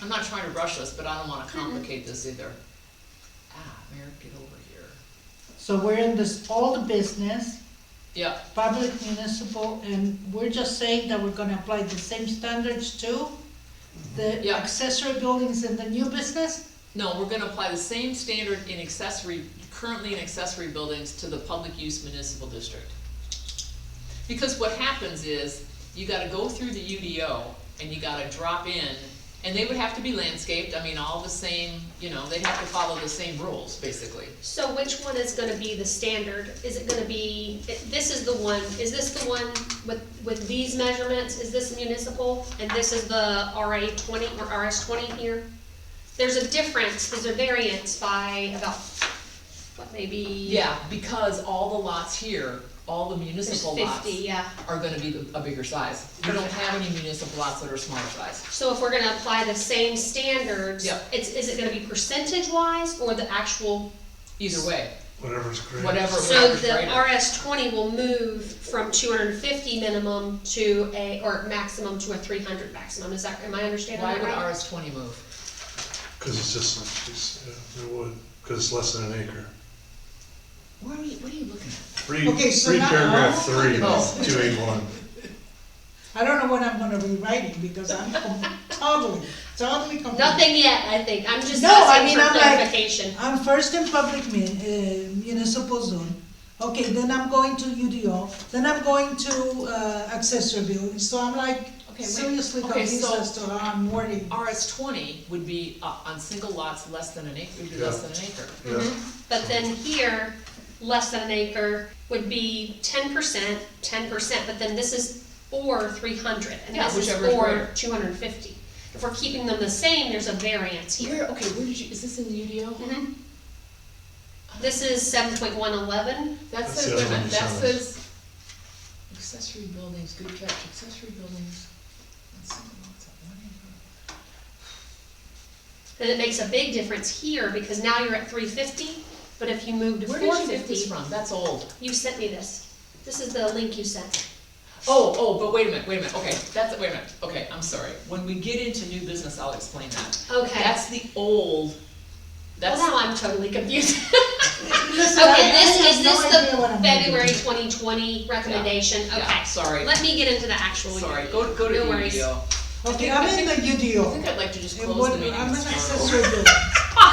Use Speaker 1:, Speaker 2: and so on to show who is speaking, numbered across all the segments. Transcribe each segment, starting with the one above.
Speaker 1: I'm not trying to rush this, but I don't wanna complicate this either. Ah, Mary, get over here.
Speaker 2: So we're in this old business,
Speaker 1: Yep,
Speaker 2: public municipal, and we're just saying that we're gonna apply the same standards to the
Speaker 1: Yeah.
Speaker 2: accessory buildings in the new business?
Speaker 1: no, we're gonna apply the same standard in accessory, currently in accessory buildings to the public use municipal district. Because what happens is, you gotta go through the UDO and you gotta drop in, and they would have to be landscaped, I mean, all the same, you know, they'd have to follow the same rules, basically.
Speaker 3: So which one is gonna be the standard? Is it gonna be, this is the one, is this the one with, with these measurements? Is this municipal? And this is the RA twenty or RS twenty here? There's a difference, there's a variance by about, what, maybe?
Speaker 1: Yeah, because all the lots here, all the
Speaker 3: There's
Speaker 1: municipal lots
Speaker 3: fifty, yeah.
Speaker 1: are gonna be the- a bigger size. We don't have any municipal lots that are smaller size.
Speaker 3: So if we're gonna apply the same standards,
Speaker 1: Yeah.
Speaker 3: it's, is it gonna be percentage wise or the actual?
Speaker 1: Either way,
Speaker 4: Whatever's great.
Speaker 1: whatever,
Speaker 3: So
Speaker 1: whatever's
Speaker 3: the
Speaker 1: greater.
Speaker 3: RS twenty will move from two hundred and fifty minimum to a, or maximum to a three hundred maximum, is that, am I understanding
Speaker 1: Why
Speaker 3: that
Speaker 1: would
Speaker 3: right?
Speaker 1: RS twenty move?
Speaker 4: Cause it's just, like- it's, yeah, it would, cause it's less than an acre.
Speaker 1: Where are you, what are you looking at?
Speaker 4: Read,
Speaker 2: Okay, so
Speaker 4: read
Speaker 2: now-
Speaker 4: paragraph three,
Speaker 1: Oh.
Speaker 4: two eight one.
Speaker 2: I don't know what I'm gonna be writing, because I'm totally, totally confused.
Speaker 3: Nothing yet, I think, I'm just
Speaker 2: No, I
Speaker 3: asking
Speaker 2: mean,
Speaker 3: for
Speaker 2: I'm like-
Speaker 3: clarification.
Speaker 2: I'm first in public mun, uh, municipal zone, okay, then I'm going to UDO, then I'm going to, uh, accessory building, so I'm like
Speaker 1: Okay, wait.
Speaker 2: seriously
Speaker 1: Okay,
Speaker 2: confused
Speaker 1: so-
Speaker 2: as to how I'm wording.
Speaker 1: RS twenty would be uh, on single lots less than an acre, would be
Speaker 4: Yeah.
Speaker 1: less than an acre.
Speaker 4: Yeah,
Speaker 3: But then here, less than an acre would be ten percent, ten percent, but then this is or three hundred, and
Speaker 1: Yeah,
Speaker 3: this is
Speaker 1: whichever is
Speaker 3: or
Speaker 1: greater.
Speaker 3: two hundred and fifty. If we're keeping them the same, there's a variance here.
Speaker 1: Where, okay, where did you, is this in the UDO?
Speaker 3: Mhm. This is seven point one eleven,
Speaker 1: That
Speaker 4: That's
Speaker 1: says,
Speaker 4: the
Speaker 1: wait a
Speaker 4: other one
Speaker 1: minute, that
Speaker 4: you showed
Speaker 1: says accessory buildings, good catch, accessory buildings. on single lots of one acre.
Speaker 3: and it makes a big difference here, because now you're at three fifty, but if you move to
Speaker 1: Where
Speaker 3: four
Speaker 1: did you get this
Speaker 3: fifty,
Speaker 1: from? That's old.
Speaker 3: you sent me this. This is the link you sent.
Speaker 1: Oh, oh, but wait a minute, wait a minute, okay, that's, wait a minute, okay, I'm sorry. When we get into new business, I'll explain that.
Speaker 3: Okay.
Speaker 1: That's the old, that's,
Speaker 3: Well, now I'm totally confused.
Speaker 2: Listen, I-
Speaker 3: Okay,
Speaker 2: I
Speaker 3: this,
Speaker 2: have
Speaker 3: is
Speaker 2: no
Speaker 3: this
Speaker 2: idea what I'm
Speaker 3: the
Speaker 2: doing.
Speaker 3: February twenty twenty recommendation?
Speaker 1: yeah,
Speaker 3: Okay,
Speaker 1: sorry,
Speaker 3: let me get into the actual.
Speaker 1: sorry,
Speaker 3: year.
Speaker 1: go, go to
Speaker 3: No
Speaker 1: the
Speaker 3: worries.
Speaker 1: UDO.
Speaker 2: Okay, I'm in the
Speaker 1: I
Speaker 2: UDO.
Speaker 1: think I'd like to just
Speaker 2: And
Speaker 1: close
Speaker 2: what-
Speaker 1: the meeting.
Speaker 2: I'm an
Speaker 1: and start over.
Speaker 2: accessory building.
Speaker 3: Ah,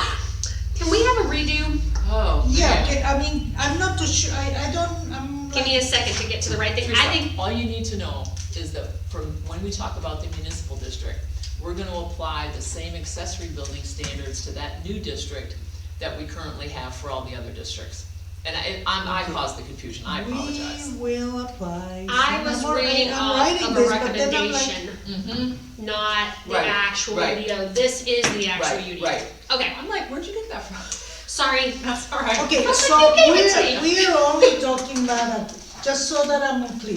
Speaker 3: Can we have a redo?
Speaker 1: Oh,
Speaker 2: Yeah,
Speaker 1: yeah.
Speaker 2: okay, I mean, I'm not too sure, I, I don't, I'm
Speaker 3: Give me a
Speaker 2: like,
Speaker 3: second to get to the right thing. I think,
Speaker 1: All you need to know is that from, when we talk about the municipal district, we're gonna apply the same accessory building standards to that new district that we currently have for all the other districts. And I, I'm- I caused the confusion, I apologize.
Speaker 2: we will apply.
Speaker 3: I
Speaker 2: So
Speaker 3: was
Speaker 2: I'm already-
Speaker 3: reading
Speaker 2: I'm
Speaker 3: off
Speaker 2: writing
Speaker 3: of a
Speaker 2: this, but then I'm like,
Speaker 3: recommendation,
Speaker 1: Mm-hmm.
Speaker 3: not the
Speaker 1: Right,
Speaker 3: actual
Speaker 1: right.
Speaker 3: UDO. This is the actual
Speaker 1: Right,
Speaker 3: UDO.
Speaker 1: right.
Speaker 3: Okay,
Speaker 1: I'm like, where'd you get that from?
Speaker 3: sorry.
Speaker 1: That's all right.
Speaker 2: Okay,
Speaker 3: Because
Speaker 2: so
Speaker 3: they gave it to
Speaker 2: we're,
Speaker 3: you.
Speaker 2: we're only talking about, a- just so that I'm clear,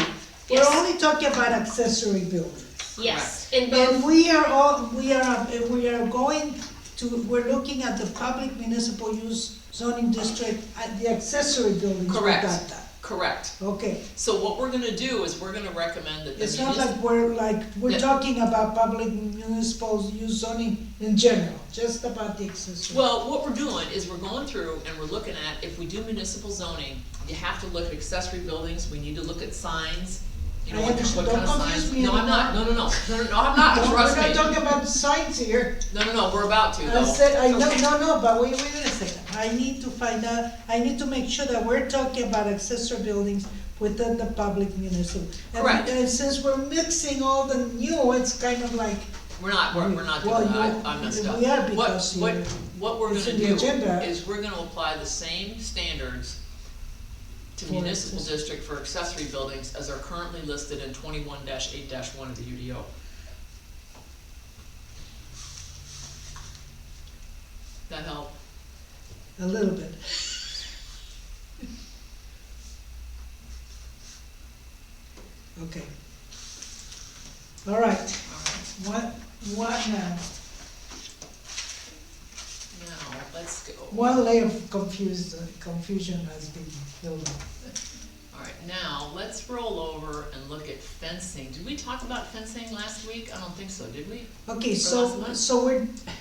Speaker 2: we're
Speaker 3: Yes.
Speaker 2: only talking about accessory buildings.
Speaker 3: Yes, in
Speaker 2: And
Speaker 3: both,
Speaker 2: we are all, we are, we are going to, we're looking at the public municipal use zoning district, at the accessory buildings. we
Speaker 1: Correct.
Speaker 2: got that.
Speaker 1: Correct.
Speaker 2: Okay,
Speaker 1: So what we're gonna do is we're gonna recommend that the
Speaker 2: it's not
Speaker 1: municipal,
Speaker 2: like we're, like, we're
Speaker 1: Yeah.
Speaker 2: talking about public municipal use zoning in general, just about the accessory.
Speaker 1: well, what we're doing is we're going through and we're looking at, if we do municipal zoning, you have to look at accessory buildings, we need to look at signs. You know,
Speaker 2: I
Speaker 1: what what
Speaker 2: understand.
Speaker 1: kind of
Speaker 2: Don't confuse
Speaker 1: signs,
Speaker 2: me
Speaker 1: no, I'm not, no, no, no, no, no, no, I'm not,
Speaker 2: Don't-
Speaker 1: trust
Speaker 2: We're not
Speaker 1: me,
Speaker 2: talking about signs here.
Speaker 1: no, no, no, we're about to though.
Speaker 2: I said, I know,
Speaker 1: Okay.
Speaker 2: no, no, but wait, wait a second, I need to find out, I need to make sure that we're talking about accessory buildings within the public municipal. And-
Speaker 1: Correct.
Speaker 2: And since we're mixing all the new, it's kind of like,
Speaker 1: We're not, we're, we're not
Speaker 2: Well,
Speaker 1: doing that,
Speaker 2: you-
Speaker 1: I I messed up.
Speaker 2: we are
Speaker 1: What-
Speaker 2: because
Speaker 1: What,
Speaker 2: you-
Speaker 1: what we're
Speaker 2: it's
Speaker 1: gonna
Speaker 2: in
Speaker 1: do
Speaker 2: the agenda.
Speaker 1: is we're gonna apply the same standards to
Speaker 2: For
Speaker 1: municipal
Speaker 2: accessory-
Speaker 1: district for accessory buildings as are currently listed in twenty-one eight one of the UDO. That help?
Speaker 2: a little bit. Okay. All right,
Speaker 1: Alright,
Speaker 2: what, what uh, now?
Speaker 1: now, let's go.
Speaker 2: uh, One layer of confused, confusion has been filled up.
Speaker 1: Alright, now let's roll over and look at fencing. Did we talk about fencing last week? I don't think so, did we?
Speaker 2: Okay,
Speaker 1: last
Speaker 2: so,
Speaker 1: month?
Speaker 2: so we're,